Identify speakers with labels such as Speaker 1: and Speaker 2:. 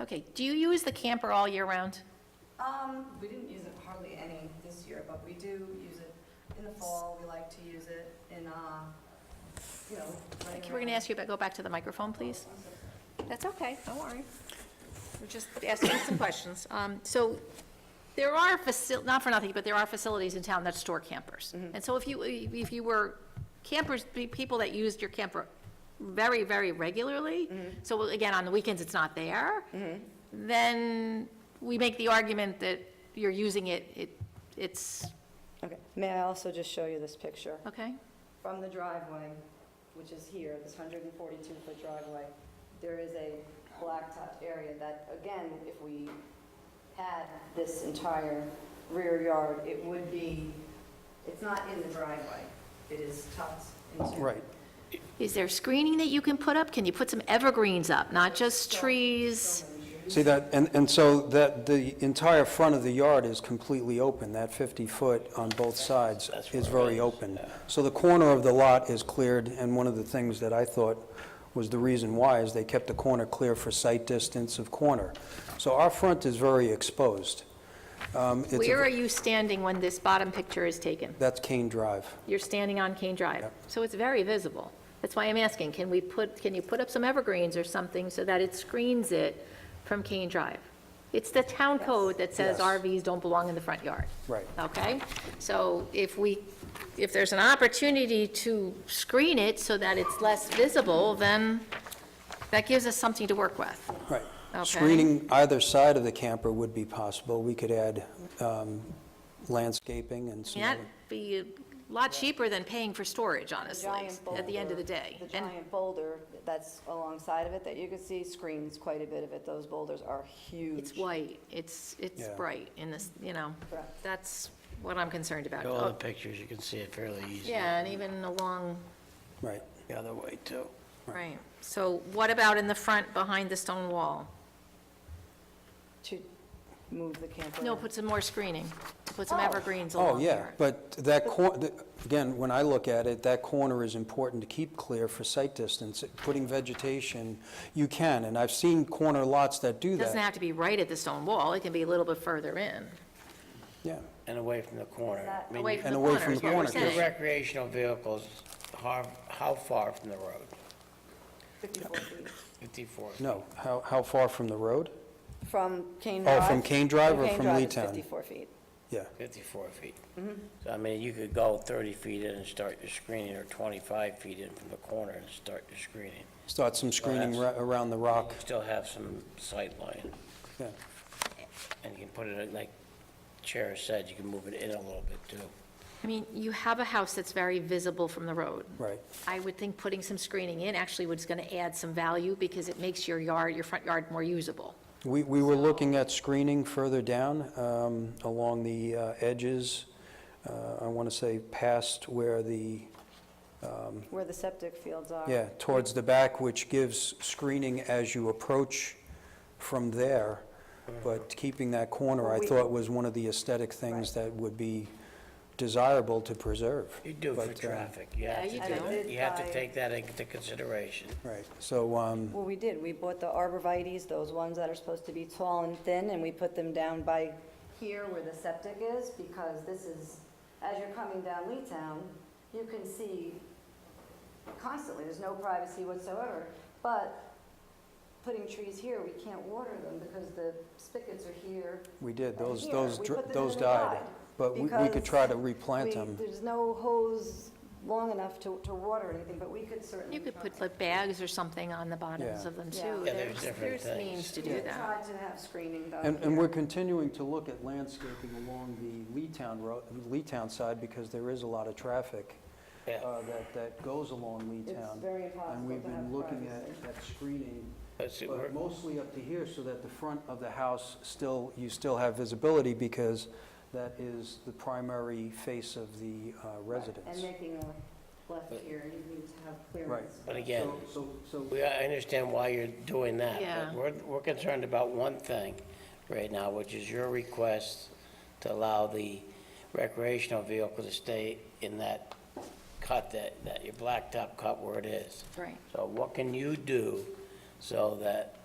Speaker 1: Okay, do you use the camper all year round?
Speaker 2: Um, we didn't use it hardly any this year, but we do use it in the fall, we like to use it in, uh, you know, running
Speaker 1: We're going to
Speaker 2: around.
Speaker 1: ask you about, go back to the microphone, please. That's okay, don't worry. We're just asking some questions. Um, So there are, faci- not for nothing, but there are facilities in town that store campers. And so if you, if you were campers, pe- people that used your camper very, very regularly, so again, on the weekends, it's not there,
Speaker 2: Mm-hmm.
Speaker 1: then we make the argument that you're using it, it- it's,
Speaker 2: Okay, may I also just show you this picture?
Speaker 1: okay?
Speaker 2: From the driveway, which is here, this 142-foot driveway, there is a blacktop area that, again, if we had this entire rear yard, it would be, it's not in the driveway, it is tucked into.
Speaker 3: Right.
Speaker 1: Is there screening that you can put up? Can you put some evergreens up, not just trees?
Speaker 3: See that, and, and so that, the entire front of the yard is completely open. That 50-foot on both sides is very open. So the corner of the lot is cleared, and one of the things that I thought was the reason why is they kept the corner clear for sight distance of corner. So our front is very exposed. Um, it's a-
Speaker 1: Where are you standing when this bottom picture is taken?
Speaker 3: That's Kane Drive.
Speaker 1: You're standing on Kane Drive, so it's very visible. That's why I'm asking, can we put, can you put up some evergreens or something so that it screens it from Kane Drive? It's the town code that says
Speaker 3: Yes.
Speaker 1: RVs don't belong in the front yard.
Speaker 3: Right.
Speaker 1: Okay? So if we, if there's an opportunity to screen it so that it's less visible, then that gives us something to work with.
Speaker 3: Right.
Speaker 1: Okay.
Speaker 3: Screening either side of the camper would be possible. We could add um, landscaping and some
Speaker 1: That'd
Speaker 3: other-
Speaker 1: be a lot cheaper than paying for storage, honestly,
Speaker 2: giant
Speaker 1: at the end of the
Speaker 2: boulder-
Speaker 1: day.
Speaker 2: The
Speaker 1: And
Speaker 2: giant boulder that's alongside of it that you can see screens quite a bit of it. Those boulders are huge.
Speaker 1: it's white, it's, it's
Speaker 3: Yeah.
Speaker 1: bright in this, you know,
Speaker 2: Correct.
Speaker 1: that's what I'm concerned about.
Speaker 4: All the
Speaker 1: Oh,
Speaker 4: pictures, you can see it fairly easily.
Speaker 1: Yeah, and even along,
Speaker 3: Right.
Speaker 4: The other way, too.
Speaker 1: right. So what about in the front, behind the stone wall?
Speaker 2: To move the camper.
Speaker 1: No,
Speaker 2: in.
Speaker 1: put some more screening, put some
Speaker 2: Oh.
Speaker 1: evergreens
Speaker 3: Oh,
Speaker 1: along
Speaker 3: yeah,
Speaker 1: there.
Speaker 3: but that cor, th- again, when I look at it, that corner is important to keep clear for sight distance. Putting vegetation, you can, and I've seen corner lots that do
Speaker 1: It Doesn't
Speaker 3: that.
Speaker 1: have to be right at the stone wall, it can be a little bit further in,
Speaker 3: Yeah,
Speaker 4: And away from the corner.
Speaker 2: That-
Speaker 4: I mean,
Speaker 1: away from
Speaker 3: and
Speaker 1: the
Speaker 3: away
Speaker 1: corner
Speaker 3: from
Speaker 1: is
Speaker 3: the
Speaker 1: what we're
Speaker 3: corner, 'cause-
Speaker 4: Your
Speaker 1: saying.
Speaker 4: recreational vehicles, how, how far from the road?
Speaker 2: 54 feet.
Speaker 4: 54.
Speaker 3: no, how, how far from the road?
Speaker 2: From Kane
Speaker 3: Oh,
Speaker 2: Drive.
Speaker 3: from Kane Drive or from
Speaker 2: Kane Drive is
Speaker 3: Leetown?
Speaker 2: 54 feet.
Speaker 3: Yeah,
Speaker 4: 54 feet. So I mean, you could go 30 feet in and start your screening, or 25 feet in from the corner and start your screening.
Speaker 3: start some screening ra-
Speaker 4: that's-
Speaker 3: around the rock,
Speaker 4: Still have some sight line,
Speaker 3: yeah.
Speaker 4: and you can put it, in, like Chair said, you can move it in a little bit, too.
Speaker 1: I mean, you have a house that's very visible from the road.
Speaker 3: Right.
Speaker 1: I would think putting some screening in actually was going to add some value because it makes your yard, your front yard more usable.
Speaker 3: We, we were looking at screening further down, um, along the uh, edges, uh, I want to say past where the,
Speaker 2: Where the septic fields are.
Speaker 3: Yeah, towards the back, which gives screening as you approach from there. But keeping that corner, I
Speaker 2: Well, we-
Speaker 3: thought was one of the aesthetic things that would be desirable to preserve.
Speaker 4: You do for
Speaker 3: But, uh,
Speaker 4: traffic, you
Speaker 1: Yeah,
Speaker 4: have
Speaker 1: you
Speaker 4: to take,
Speaker 1: do.
Speaker 4: that- you have
Speaker 2: By-
Speaker 4: to take that into consideration.
Speaker 3: Right, so, um,
Speaker 2: Well, we did. We bought the arborvitae's, those ones that are supposed to be tall and thin, and we put them down by here where the septic is, because this is, as you're coming down Leetown, you can see constantly, there's no privacy whatsoever. But putting trees here, we can't water them because the spigots are here.
Speaker 3: we did,
Speaker 2: and
Speaker 3: those,
Speaker 2: here.
Speaker 3: those,
Speaker 2: We
Speaker 3: dr-
Speaker 2: put them
Speaker 3: those
Speaker 2: in the yard
Speaker 3: died. But we, we could
Speaker 2: because
Speaker 3: try to replant
Speaker 2: we-
Speaker 3: them.
Speaker 2: There's no hose long enough to, to water anything, but we could certainly.
Speaker 1: You could put
Speaker 2: try.
Speaker 1: like bags or something on the bottoms
Speaker 3: Yeah.
Speaker 1: of them
Speaker 2: Yeah.
Speaker 1: too.
Speaker 2: Yeah,
Speaker 4: there's different
Speaker 1: There's
Speaker 4: things.
Speaker 1: means to
Speaker 2: We
Speaker 1: do
Speaker 2: could
Speaker 1: that.
Speaker 2: Try to have screening done
Speaker 3: And, and we're
Speaker 2: here.
Speaker 3: continuing to look at landscaping along the Leetown road, Leetown side, because there is a lot of traffic
Speaker 4: Yeah.
Speaker 3: uh, that, that goes along Leetown.
Speaker 2: It's very
Speaker 3: And
Speaker 2: impossible
Speaker 3: we've
Speaker 2: to have
Speaker 3: been looking at,
Speaker 2: privacy.
Speaker 3: at screening
Speaker 4: That's it, we're-
Speaker 3: But mostly up to here, so that the front of the house still, you still have visibility, because that is the primary face of the uh,
Speaker 2: And
Speaker 3: residence.
Speaker 2: making a left here, you need to have clearance.
Speaker 4: But again,
Speaker 3: So, so, so-
Speaker 4: we, I understand why you're doing that.
Speaker 1: Yeah.
Speaker 4: But we're, we're concerned about one thing right now, which is your request to allow the recreational vehicle to stay in that cut, that, that your blacktop cut where it is.
Speaker 1: Right.
Speaker 4: So what can you do so that